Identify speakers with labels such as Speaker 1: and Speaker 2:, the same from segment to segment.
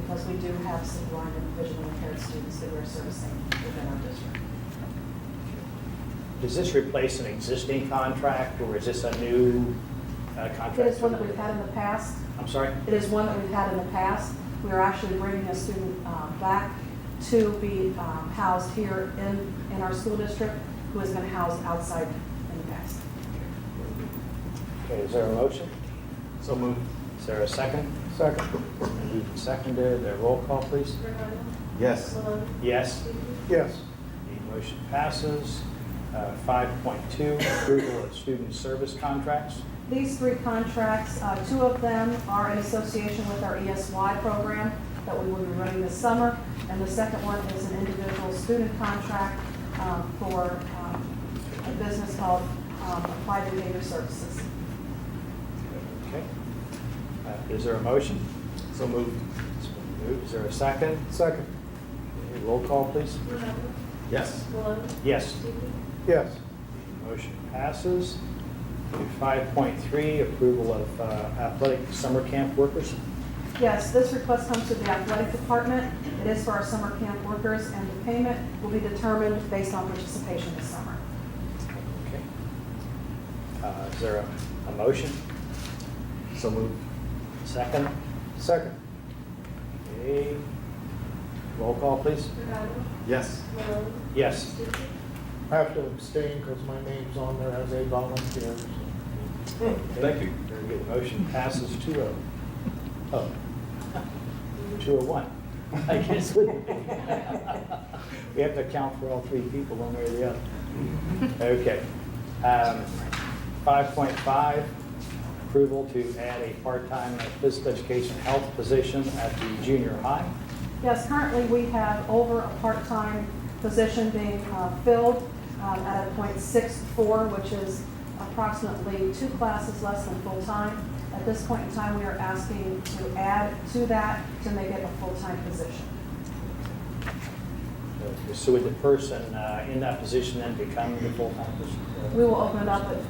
Speaker 1: because we do have some blind and visually impaired students that we're servicing within our district.
Speaker 2: Does this replace an existing contract, or is this a new uh, contract?
Speaker 1: It is one that we've had in the past.
Speaker 2: I'm sorry?
Speaker 1: It is one that we've had in the past. We are actually bringing a student uh, back to be um, housed here in, in our school district, who has been housed outside in the past.
Speaker 2: Okay, is there a motion?
Speaker 3: So moved.
Speaker 2: Is there a second?
Speaker 3: Second.
Speaker 2: Moved and seconded, a roll call, please.
Speaker 3: Yes.
Speaker 2: Yes,
Speaker 3: Yes.
Speaker 2: the motion passes. Uh, 5.2, approval of student service contracts.
Speaker 1: These three contracts, uh, two of them are in association with our ESY program that we will be running this summer, and the second one is an individual student contract um, for um, a business called um, Applied Behavior Services.
Speaker 2: Okay. Uh, Is there a motion?
Speaker 3: So moved.
Speaker 2: It's been moved. Is there a second?
Speaker 3: Second.
Speaker 2: Okay, Roll call, please.
Speaker 3: Yes.
Speaker 2: Yes.
Speaker 3: Yes.
Speaker 2: Motion passes. Five point three, approval of uh, athletic summer camp workers.
Speaker 1: Yes, this request comes to the athletic department. It is for our summer camp workers, and the payment will be determined based on participation this summer.
Speaker 2: Okay. Uh, Is there a- a motion?
Speaker 3: So moved.
Speaker 2: Second?
Speaker 3: Second.
Speaker 2: Okay. Roll call, please.
Speaker 3: Yes.
Speaker 2: Yes.
Speaker 4: I have to abstain because my name's on there as a volunteer. so.
Speaker 2: Thank you. Very good. Motion passes two oh. Oh. Two oh one. I guess we, we have to account for all three people, one way or the other. Okay. Um, Five point five, approval to add a part-time physical education health position at the junior high.
Speaker 1: Yes, currently we have over a part-time position being uh, filled um, at a .64, which is approximately two classes less than full-time. At this point in time, we are asking to add to that to make it a full-time position.
Speaker 2: So would the person uh, in that position then become the full-time
Speaker 1: We
Speaker 2: person?
Speaker 1: will open it up, but it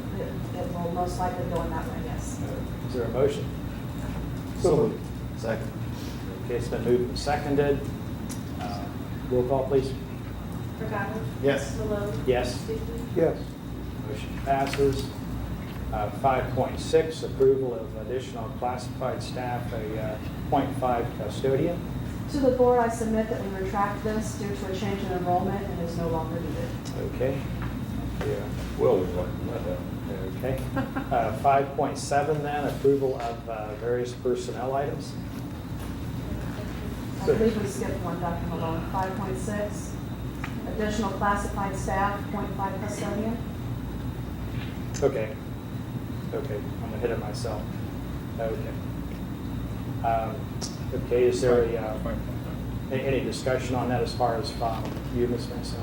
Speaker 1: it will most likely go in that way, yes.
Speaker 2: Is there a motion?
Speaker 3: So moved. Second.
Speaker 2: Okay, it's been moved and seconded. Uh, Roll call, please.
Speaker 5: Regano.
Speaker 3: Yes.
Speaker 5: Malone.
Speaker 2: Yes.
Speaker 5: Stuckey.
Speaker 3: Yes.
Speaker 2: Motion passes. Uh, 5.6, approval of additional classified staff, a uh, .5 custodian.
Speaker 1: To the board, I submit that we retract this due to a change in enrollment and is no longer needed.
Speaker 2: Okay. Yeah.
Speaker 6: Well, we want that happen.
Speaker 2: Okay. Uh, 5.7 then, approval of uh, various personnel items.
Speaker 1: I believe we skipped one, Dr. Malone, 5.6, additional classified staff, .5 custodian.
Speaker 2: Okay. Okay, I'm gonna hit it myself. Okay. Um, Okay, is there a, uh, a- any discussion on that as far as from you, Ms. Mason?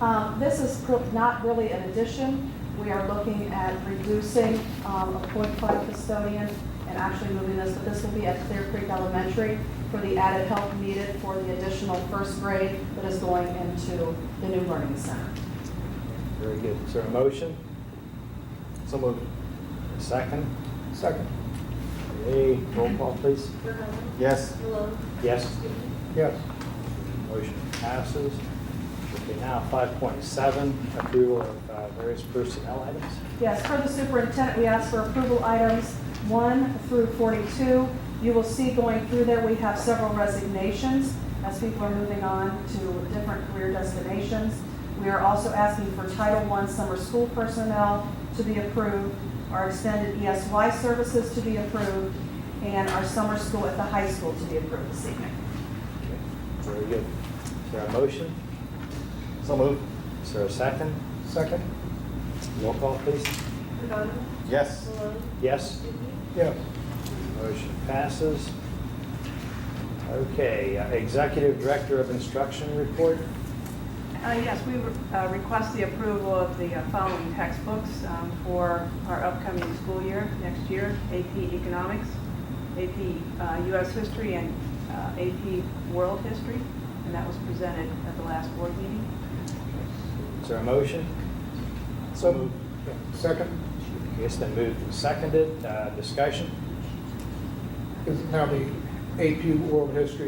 Speaker 1: Um, This is cr- not really an addition. We are looking at reducing um, a .5 custodian and actually moving this, but this will be at Clear Creek Elementary for the added help needed for the additional first grade that is going into the new learning center.
Speaker 2: Very good. Is there a motion?
Speaker 3: So moved.
Speaker 2: A second?
Speaker 3: Second.
Speaker 2: Hey, roll call, please.
Speaker 5: Regano.
Speaker 3: Yes.
Speaker 5: Malone.
Speaker 2: Yes,
Speaker 5: Stuckey.
Speaker 3: Yes.
Speaker 2: motion passes. Okay, now 5.7, approval of uh, various personnel items.
Speaker 1: Yes, for the superintendent, we ask for approval items 1 through 42. You will see going through there, we have several resignations as people are moving on to different career destinations. We are also asking for Title I summer school personnel to be approved, our extended ESY services to be approved, and our summer school at the high school to be approved this evening.
Speaker 2: Okay, Very good. Is there a motion?
Speaker 3: So moved.
Speaker 2: Is there a second?
Speaker 3: Second.
Speaker 2: Roll call, please.
Speaker 5: Regano.
Speaker 3: Yes.
Speaker 5: Malone.
Speaker 2: Yes,
Speaker 5: Stuckey.
Speaker 3: Yes.
Speaker 2: motion passes. Okay, uh, Executive Director of Instruction report.
Speaker 7: Uh, Yes, we uh, request the approval of the uh, following textbooks um, for our upcoming school year, next year, AP Economics, AP uh, US History, and uh, AP World History, and that was presented at the last board meeting.
Speaker 2: Is there a motion?
Speaker 3: So moved. Second.
Speaker 2: Okay, It's been moved and seconded. Uh, Discussion?
Speaker 4: Is now the AP World History